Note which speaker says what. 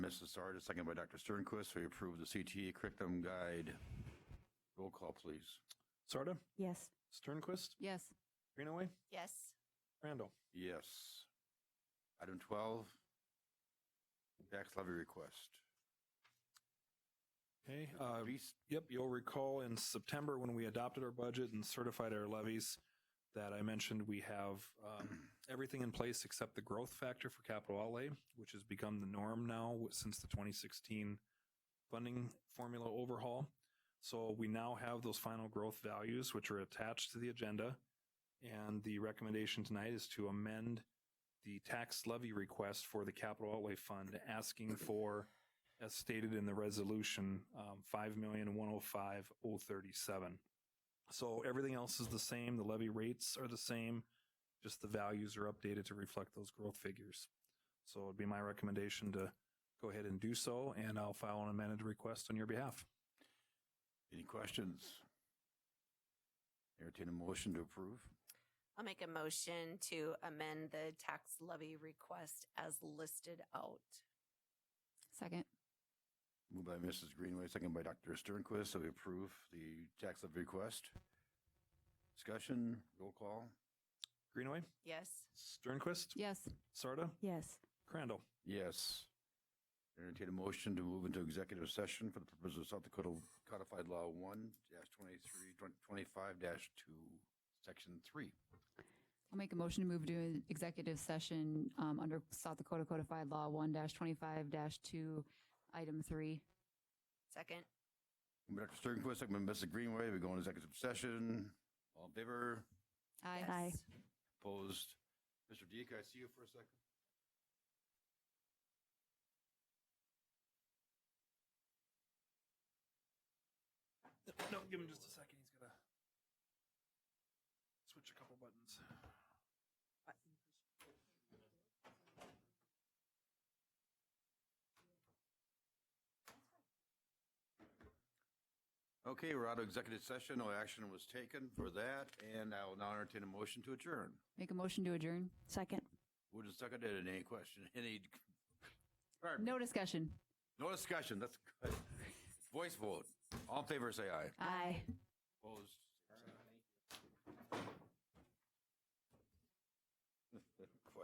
Speaker 1: Mr. Sarda, second by Dr. Sternquist. We approve the CTE curriculum guide. Roll call, please.
Speaker 2: Sarda,
Speaker 3: Yes.
Speaker 2: Sternquist,
Speaker 3: Yes.
Speaker 2: Greenaway,
Speaker 4: Yes.
Speaker 2: Randall.
Speaker 1: Yes. Item 12, tax levy request.
Speaker 2: Okay. Uh,
Speaker 1: Beast-
Speaker 2: Yep, you'll recall in September when we adopted our budget and certified our levies that I mentioned we have um, everything in place except the growth factor for capital outlay, which has become the norm now w- since the 2016 funding formula overhaul. So we now have those final growth values, which are attached to the agenda. And the recommendation tonight is to amend the tax levy request for the capital outlay fund, asking for as stated in the resolution, um, five million, one oh five, oh thirty-seven. So everything else is the same. The levy rates are the same. Just the values are updated to reflect those growth figures. So it'd be my recommendation to go ahead and do so, and I'll file an amended request on your behalf.
Speaker 1: Any questions? Entertain a motion to approve.
Speaker 4: I'll make a motion to amend the tax levy request as listed out.
Speaker 3: Second.
Speaker 1: Moved by Mrs. Greenway, second by Dr. Sternquist. So we approve the tax levy request. Discussion, roll call.
Speaker 2: Greenaway,
Speaker 4: Yes.
Speaker 2: Sternquist,
Speaker 3: Yes.
Speaker 2: Sarda,
Speaker 3: Yes.
Speaker 2: Crandall.
Speaker 1: Yes. Entertain a motion to move into executive session for the purpose of South Dakota Codified Law 1-23-25-2, Section 3.
Speaker 5: I'll make a motion to move to an executive session um, under South Dakota Codified Law 1-25-2, Item 3.
Speaker 4: Second.
Speaker 1: Dr. Sternquist, second by Mrs. Greenway. We go into executive session. All in favor?
Speaker 5: Aye.
Speaker 3: Aye.
Speaker 4: Yes.
Speaker 1: Opposed? Mr. Deek, I see you for a second.
Speaker 2: No, give him just a second. He's gonna switch a couple buttons.
Speaker 1: Okay, we're out of executive session. No action was taken for that, and I will now entertain a motion to adjourn.
Speaker 5: Make a motion to adjourn.
Speaker 3: Second.
Speaker 1: Who just seconded it? Any question? Any? All right,
Speaker 5: No discussion.
Speaker 1: No discussion. That's good. Voice vote. All in favor, say aye.
Speaker 3: Aye.
Speaker 1: Opposed?